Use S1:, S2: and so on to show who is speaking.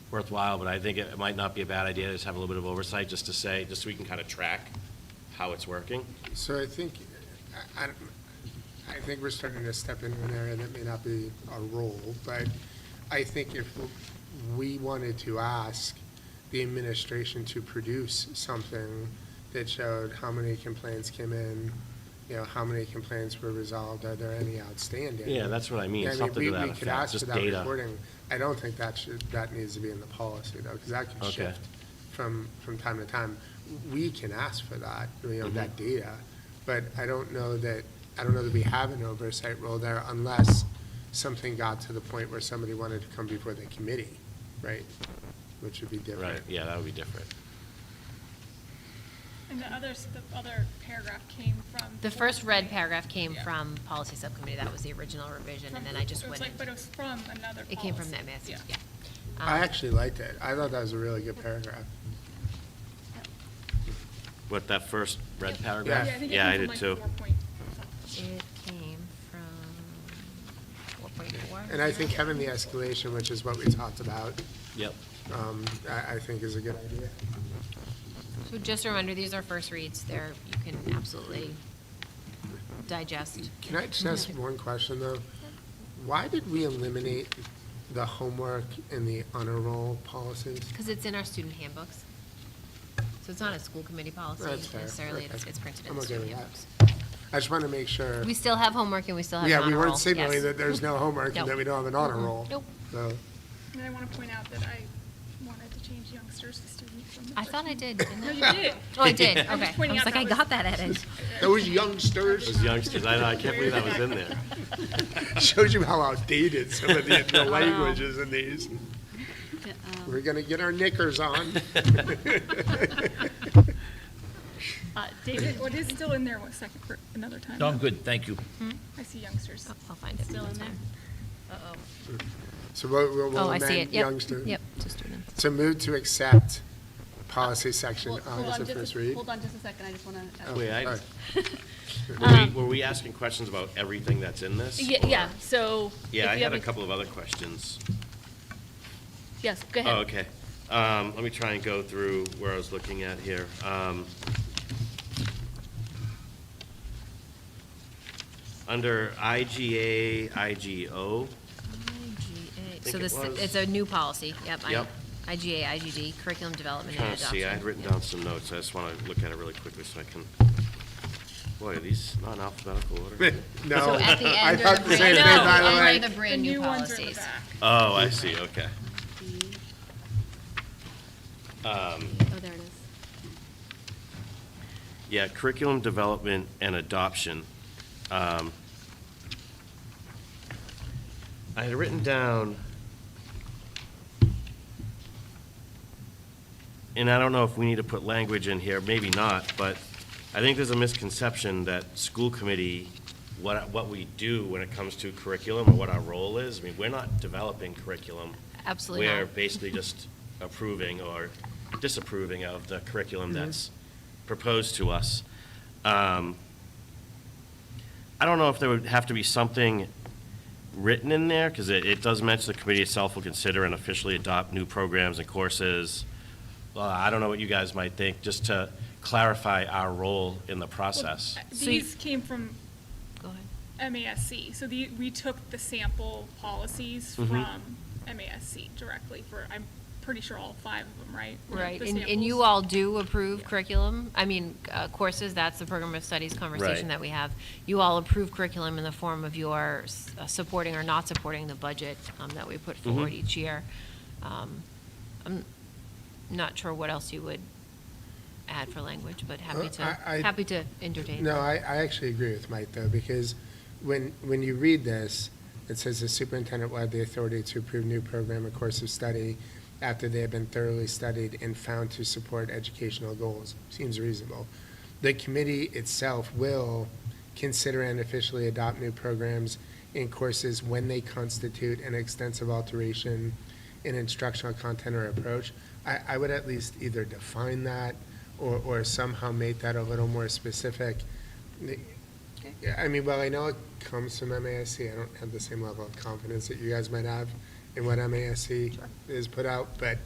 S1: worthwhile, but I think it might not be a bad idea to just have a little bit of oversight, just to say, just so we can kind of track how it's working.
S2: So I think, I, I don't- I think we're starting to step into an area that may not be our role, but I think if we wanted to ask the administration to produce something that showed how many complaints came in, you know, how many complaints were resolved, are there any outstanding?
S1: Yeah, that's what I mean,
S2: I mean,
S1: something
S2: we-
S1: to that
S2: We could
S1: effect,
S2: ask for
S1: just
S2: that
S1: data.
S2: reporting. I don't think that should, that needs to be in the policy though, because that could
S1: Okay.
S2: shift from, from time to time. We can ask for that, you
S1: Mm-hmm.
S2: know, that data, but I don't know that, I don't know that we have an oversight role there unless something got to the point where somebody wanted to come before the committee, right? Which would be different.
S1: Right, yeah, that would be different.
S3: And the others, the other paragraph came from.
S4: The first red paragraph came
S3: Yeah.
S4: from policy subcommittee, that was the original revision, and then I just
S3: It was
S4: went,
S3: like, but it
S4: and-
S3: was from another
S4: it came from
S3: policy.
S4: that message,
S3: Yeah.
S4: yeah.
S2: I
S4: Um,
S2: actually liked it. I thought that was a really good paragraph.
S1: What, that first red
S3: Yep.
S1: paragraph?
S3: Yeah, I think it
S1: Yeah, I
S3: came
S1: did
S3: from
S1: too.
S3: like four point
S4: It came from four point four.
S2: And I think having the escalation, which is what we talked about,
S1: Yep,
S2: um, I, I think is a good idea.
S4: So just a reminder, these are first reads, they're, you can absolutely digest.
S2: Can I just ask one question, though? Why did we eliminate the homework and the honor roll policies?
S4: Because it's in our student handbooks. So it's not a school committee policy
S2: That's fair.
S4: necessarily,
S2: Okay.
S4: it's it's printed in
S2: I'm
S4: the
S2: okay
S4: student
S2: with that.
S4: handbooks.
S2: I just want to make sure,
S4: We still have homework and we still have an
S2: yeah, we
S4: honor roll,
S2: weren't signaling
S4: yes.
S2: that there's no homework and
S4: No.
S2: that we don't have an honor roll.
S4: Nope.
S2: So,
S3: And I want to point out that I wanted to change youngsters to students. from the
S4: I thought I
S3: first
S4: did, didn't
S3: one. No,
S4: I?
S3: you did.
S4: Oh, I did, okay.
S3: I'm just
S4: I
S3: pointing
S4: was
S3: out
S4: like,
S3: that
S4: I
S3: was-
S4: got that edit.
S2: Those youngsters,
S1: those youngsters, I know, I can't believe that was in there.
S2: shows you how outdated some of the the language is in these.
S4: um.
S2: We're going to get our knickers on.
S3: Uh, David, what is still in there, what, second, for another time? Hmm?
S5: No, I'm good, thank you.
S3: I see youngsters.
S4: I'll- I'll find it. Still in there?
S2: So we'll, we'll-
S4: Oh,
S2: we'll
S4: I see
S2: amend
S4: it, yep,
S2: youngsters.
S4: yep, to students.
S2: So move to accept policy section
S6: Hold-
S2: on
S6: hold
S2: as a
S6: just a-
S2: first read. Oh,
S6: Hold on just a second, I just want to.
S1: Oh, Wait, I,
S2: All right.
S1: were we, were we asking questions about everything that's in this?
S6: Yeah,
S1: or-
S6: yeah, so. if
S1: Yeah, I
S6: you have
S1: had a couple of other questions.
S6: Yes, go ahead.
S1: Oh, okay. Um, let me try and go through where I was looking at here. Um, under IGA, IGO,
S4: IGA,
S1: think
S4: so
S1: it
S4: this,
S1: was.
S4: it's a new policy, yep. I-
S1: Yep.
S4: IGA, IGD, curriculum development and
S1: trying to
S4: adoption.
S1: see, I had written
S4: yep.
S1: down some notes. I just want to look at it really quickly so I can, boy, are these not in alphabetical order?
S4: So
S2: No,
S4: at the
S2: I
S4: end are
S2: thought
S4: the
S2: the same
S4: brand,
S2: thing,
S4: no,
S2: by the
S4: I
S2: way.
S4: the brand new policies.
S1: Oh, I see, okay. Um,
S6: Oh, there it is.
S1: Yeah, curriculum development and adoption. Um, I had written down, and I don't know if we need to put language in here, maybe not, but I think there's a misconception that school committee, what, what we do when it comes to curriculum or what our role is, I mean, we're not developing curriculum.
S4: Absolutely not.
S1: We're basically just approving or disapproving of the curriculum
S4: Mm-hmm.
S1: that's proposed to us. Um, I don't know if there would have to be something written in there, because it, it does mention the committee itself will consider and officially adopt new programs and courses. Well, I don't know what you guys might think, just to clarify our role in the process.
S3: Well,
S4: So you-
S3: These came from
S4: Go ahead.
S3: MASC, so the, we took the sample policies
S1: Mhm.
S3: from MASC directly for, I'm pretty sure all five of them, right? Were
S4: Right,
S3: the
S4: and, and
S3: samples?
S4: you all do approve
S3: Yeah.
S4: curriculum, I mean, uh, courses, that's the program of studies
S1: Right.
S4: conversation that we have. You all approve curriculum in the form of your s- uh, supporting or not supporting the budget um, that we put forward
S1: Mhm.
S4: each year. Um, I'm not sure what else you would add for language, but happy
S2: Uh,
S4: to,
S2: I- I-
S4: happy to entertain.
S2: No, I, I actually agree with Mike, though, because when, when you read this, it says the superintendent will have the authority to approve new program or course of study after they have been thoroughly studied and found to support educational goals. Seems reasonable. The committee itself will consider and officially adopt new programs and courses when they constitute an extensive alteration in instructional content or approach. I, I would at least either define that or, or somehow make that a little more specific. The- yeah, I mean, well, I know it comes from MASC, I don't have the same level of confidence that you guys might have in what MASC is put out, but